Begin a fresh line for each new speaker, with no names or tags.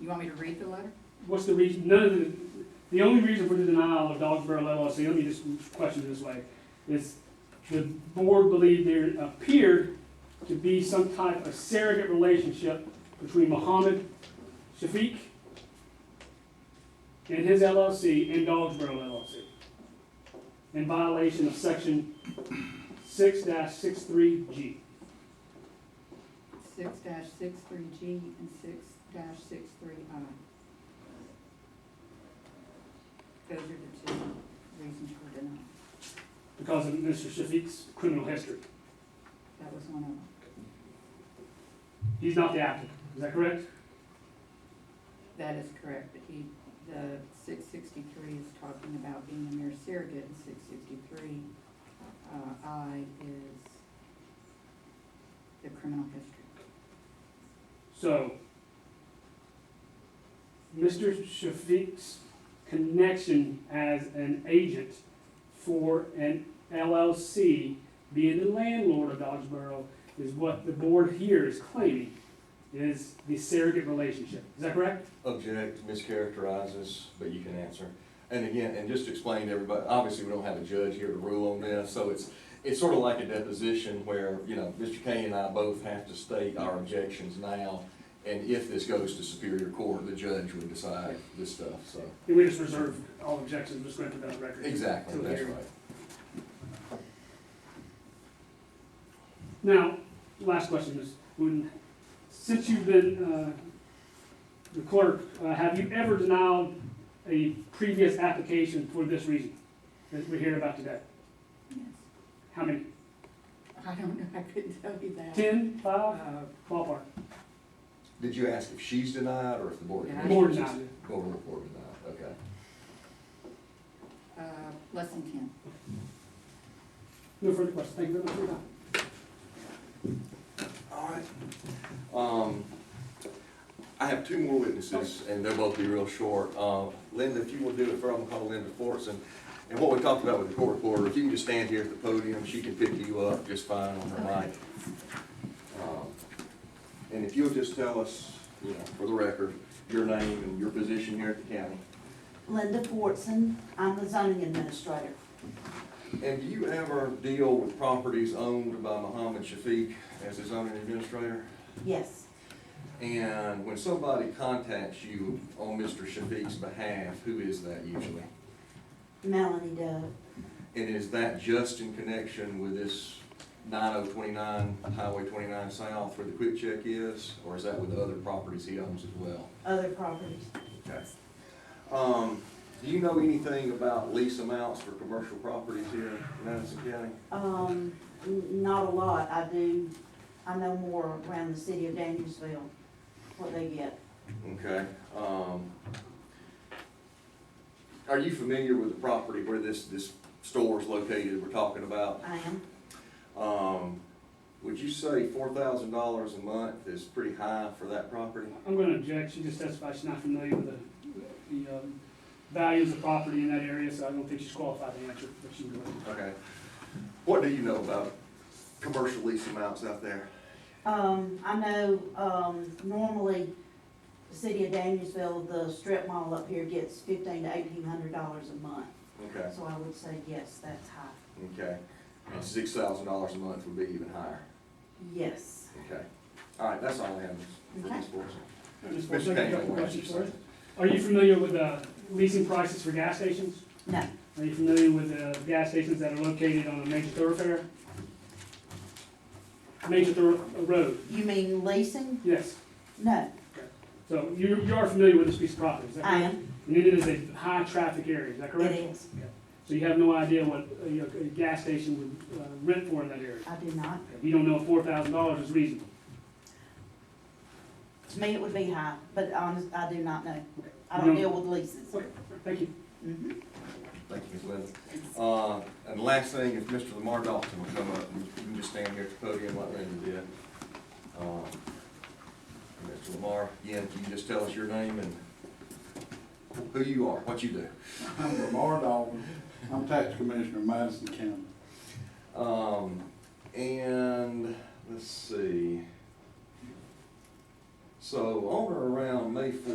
You want me to read the letter?
What's the reason, none of the, the only reason for the denial of Dogsboro LLC, let me just question it this way, is the board believed there appeared to be some type of surrogate relationship between Mohammed Shafiq and his LLC and Dogsboro LLC in violation of section six 63 G.
Six dash six three G and six dash six three I. Those are the two reasons for denial.
because of Mr. Shafiq's criminal history.
That was one of them.
He's not the applicant, is that correct?
That is correct, but he, the six sixty-three is talking about being a mere surrogate, and six sixty-three, uh, I is the criminal history.
So, Mr. Shafiq's connection as an agent for an LLC, being the landlord of Dodgeboro, is what the board here is claiming is the surrogate relationship. Is that correct?
object, mischaracterizes, but you can answer. And again, and just to explain to everybody, obviously, we don't have a judge here to rule on this, so it's, it's sort of like a deposition where, you know, Mr. Kay and I both have to state our objections now, and if this goes to Superior Court, the judge would decide this stuff, so.
And we just reserve all objections, just going to put that on record.
Exactly,
Till the
that's
hearing.
right.
Now, last question is, when, since you've been, uh, the clerk, uh, have you ever denied a previous application for this reason that we're hearing about today?
Yes.
How many?
I don't know, I couldn't tell you that.
Ten, five,
Uh,
ballpark?
Did you ask if she's denied or if the board? of
Yeah.
Board
Commissioners-
denied.
Board, board denied, okay.
uh, less than ten.
No further questions. Thank you very much for your time.
All right. Um, I have two more witnesses, and they'll both be real short. Uh, Linda, if you will do it for, I'm gonna call Linda Fortson. And what we talked about with the court reporter, if you can just stand here at the podium, she can pick you up just fine on her mic. Um, And if you'll just tell us, you know, for the record, your name and your position here at the county.
Linda Fortson, I'm the zoning administrator.
And do you ever deal with properties owned by Mohammed Shafiq as his owner and administrator?
Yes,
And when somebody contacts you on Mr. Shafiq's behalf, who is that usually?
Melanie Dove.
And is that just in connection with this nine oh twenty-nine, Highway twenty-nine south where the quick check is? Or is that with the other properties he owns as well?
other properties.
Okay. Um, do you know anything about lease amounts for commercial properties here in Madison County?
Um, n- not a lot, I do, I know more around the city of Danielsville, what they get.
Okay, um, are you familiar with the property where this, this store is located we're talking about?
I am,
Um, would you say four thousand dollars a month is pretty high for that property?
I'm gonna object. She just testified she's not familiar with the, the, um, values of property in that area, so I don't think she's qualified to answer, but she would.
Okay. What do you know about commercial lease amounts out there?
um, I know, um, normally, the city of Danielsville, the strip mall up here gets fifteen to eighteen hundred dollars a month.
Okay,
So I would say, yes, that's high,
okay. And six thousand dollars a month would be even higher.
yes.
Okay. All right, that's all I have for this board.
Just one
Mr.
second,
Kane,
couple
what
questions
you
for
say?
us. Are you familiar with, uh, leasing prices for gas stations?
No,
Are you familiar with the gas stations that are located on a major thoroughfare? Major thorough, a road,
you mean leasing?
yes.
No,
So you, you are familiar with this piece of property, is that
I
correct?
am,
And it is a high-traffic area, is that
it
correct?
is,
So you have no idea what a, you know, a gas station would uh, rent for in that area?
I do not.
You don't know if four thousand dollars is reasonable?
To me, it would be high, but honest, I do not know. I
You
don't
don't-
deal with leases.
Okay, thank you.
Mhm.
Thank you, Ms. Linda. Uh, and the last thing, if Mr. Lamar Dalton will come up, you can just stand here at the podium like Linda did. Um, Mr. Lamar, again, can you just tell us your name and who you are, what you do?
I'm Lamar Dalton. I'm tax commissioner of Madison County.
Um, and let's see. So on or around May fourth.